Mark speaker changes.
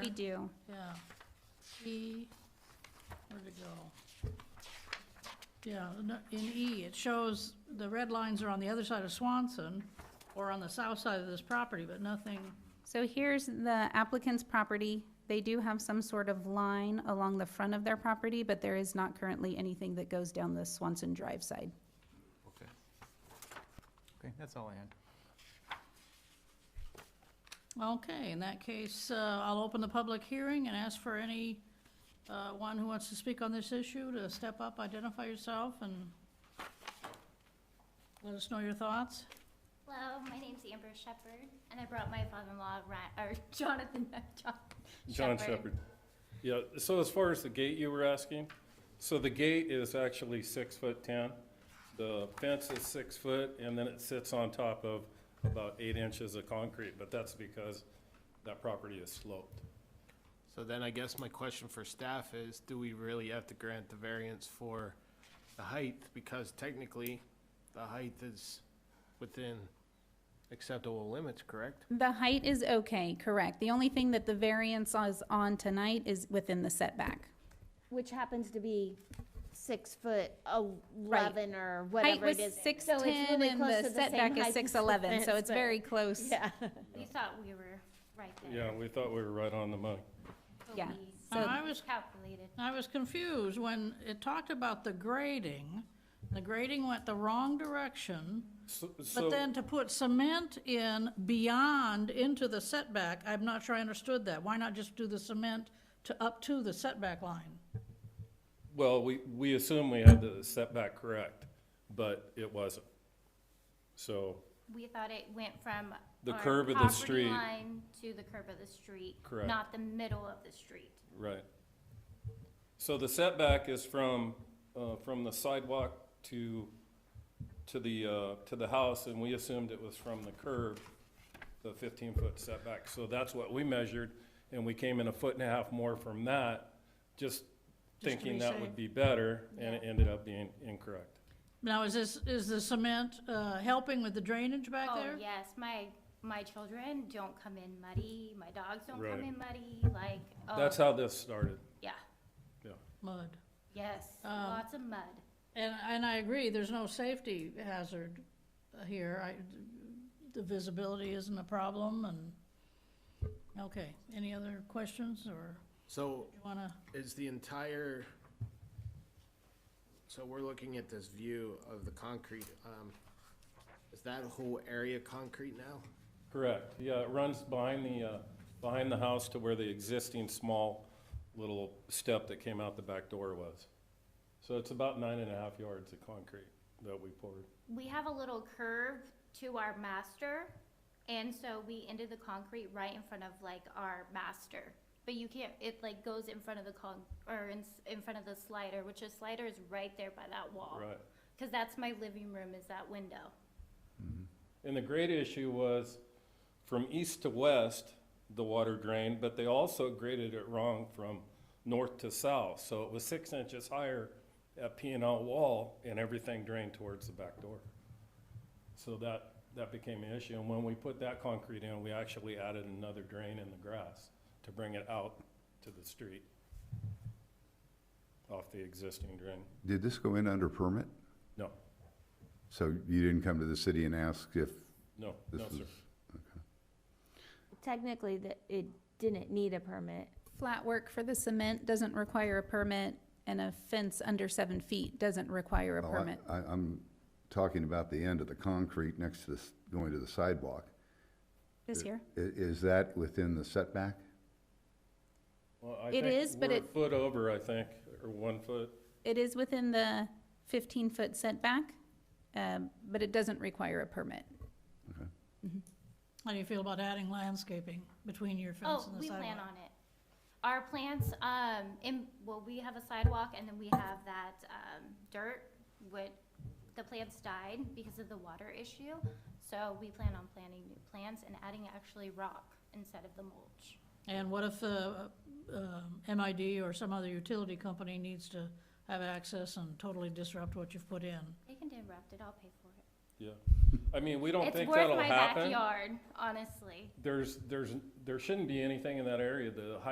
Speaker 1: we do.
Speaker 2: Yeah. E, where'd it go? Yeah, no- in E, it shows the red lines are on the other side of Swanson or on the south side of this property, but nothing,
Speaker 1: So here's the applicant's property. They do have some sort of line along the front of their property, but there is not currently anything that goes down the Swanson Drive side.
Speaker 3: Okay. Okay, that's all I had.
Speaker 2: okay, in that case, uh, I'll open the public hearing and ask for any, uh, one who wants to speak on this issue to step up, identify yourself, and let us know your thoughts.
Speaker 4: Hello, my name's Amber Shepherd, and I brought my father-in-law, Ra- or Jonathan, John
Speaker 5: John Shepherd. Yeah, so as far as the gate you were asking, so the gate is actually six foot ten. The fence is six foot, and then it sits on top of about eight inches of concrete, but that's because that property is sloped.
Speaker 6: So then I guess my question for staff is, do we really have to grant the variance for the height? Because technically, the height is within acceptable limits, correct?
Speaker 1: The height is okay, correct. The only thing that the variance is on tonight is within the setback.
Speaker 7: Which happens to be six foot eleven or
Speaker 1: Height
Speaker 7: whatever
Speaker 1: was
Speaker 7: it is.
Speaker 1: six
Speaker 7: So it's
Speaker 1: ten
Speaker 7: really
Speaker 1: and
Speaker 7: close to
Speaker 1: the
Speaker 7: same
Speaker 1: setback
Speaker 7: height
Speaker 1: is
Speaker 7: as
Speaker 1: six
Speaker 7: the
Speaker 1: eleven, so
Speaker 7: fence,
Speaker 1: it's
Speaker 7: but-
Speaker 1: very close.
Speaker 7: Yeah.
Speaker 4: We thought we were right there.
Speaker 5: Yeah, we thought we were right on the money.
Speaker 4: but
Speaker 1: Yeah.
Speaker 4: we um,
Speaker 1: So-
Speaker 2: I was
Speaker 4: Calculated.
Speaker 2: I was confused when it talked about the grading. The grading went the wrong direction,
Speaker 5: So- so-
Speaker 2: but then to put cement in beyond into the setback, I'm not sure I understood that. Why not just do the cement to up to the setback line?
Speaker 5: Well, we, we assume we had the setback correct, but it wasn't. So,
Speaker 4: We thought it went from.
Speaker 5: The
Speaker 4: our
Speaker 5: curb of the
Speaker 4: property
Speaker 5: street.
Speaker 4: line To the curb of the street.
Speaker 5: Correct.
Speaker 4: Not the middle of the street.
Speaker 5: right. So the setback is from, uh, from the sidewalk to, to the, uh, to the house, and we assumed it was from the curb, the fifteen-foot setback. So that's what we measured, and we came in a foot and a half more from that, just
Speaker 2: be
Speaker 5: thinking that
Speaker 2: safe.
Speaker 5: would be better, and it ended up being incorrect.
Speaker 2: Now, is this, is the cement, uh, helping with the drainage back
Speaker 4: Oh,
Speaker 2: there?
Speaker 4: yes, my, my children don't come in muddy, my dogs don't
Speaker 5: Right.
Speaker 4: come in muddy, like,
Speaker 5: That's
Speaker 4: oh,
Speaker 5: how this started,
Speaker 4: yeah,
Speaker 5: yeah.
Speaker 2: Mud.
Speaker 4: yes,
Speaker 1: Um,
Speaker 4: lots of mud.
Speaker 2: And, and I agree, there's no safety hazard here. I, the visibility isn't a problem and, okay. Any other questions or
Speaker 6: So
Speaker 2: you wanna?
Speaker 6: is the entire, so we're looking at this view of the concrete, um, is that whole area concrete now?
Speaker 5: Correct, yeah, it runs behind the, uh, behind the house to where the existing small little step that came out the back door was. So it's about nine and a half yards of concrete that we poured.
Speaker 4: we have a little curve to our master, and so we ended the concrete right in front of like our master. But you can't, it like goes in front of the con, or in, s- in front of the slider, which the slider is right there by that wall.
Speaker 5: Right.
Speaker 4: Cause that's my living room is that window.
Speaker 5: And the great issue was, from east to west, the water drained, but they also graded it wrong from north to south. So it was six inches higher at P and L wall, and everything drained towards the back door. So that, that became an issue, and when we put that concrete in, we actually added another drain in the grass to bring it out to the street off the existing drain.
Speaker 8: Did this go in under permit?
Speaker 5: No,
Speaker 8: So you didn't come to the city and ask if
Speaker 5: no,
Speaker 8: this
Speaker 5: no,
Speaker 8: was?
Speaker 5: sir.
Speaker 7: Technically, that it didn't need a permit.
Speaker 1: Flat work for the cement doesn't require a permit, and a fence under seven feet doesn't require a
Speaker 8: Well, I-
Speaker 1: permit.
Speaker 8: I, I'm talking about the end of the concrete next to this, going to the sidewalk.
Speaker 1: This here?
Speaker 8: I- is that within the setback?
Speaker 5: Well, I
Speaker 1: It
Speaker 5: think
Speaker 1: is, but
Speaker 5: we're a
Speaker 1: it-
Speaker 5: Foot over, I think, or one foot.
Speaker 1: It is within the fifteen-foot setback, um, but it doesn't require a permit.
Speaker 2: How do you feel about adding landscaping between your fence
Speaker 4: Oh,
Speaker 2: and the
Speaker 4: we plan
Speaker 2: sidewalk?
Speaker 4: on it. Our plants, um, in, well, we have a sidewalk and then we have that, um, dirt, which the plants died because of the water issue. So we plan on planting new plants and adding actually rock instead of the mulch.
Speaker 2: And what if, uh, um, MID or some other utility company needs to have access and totally disrupt what you've put in?
Speaker 4: They can interrupt it, I'll pay for it.
Speaker 5: Yeah, I mean, we don't
Speaker 4: It's
Speaker 5: think
Speaker 4: worth
Speaker 5: that'll
Speaker 4: my
Speaker 5: happen.
Speaker 4: backyard, honestly.
Speaker 5: There's, there's, there shouldn't be anything in that area. The high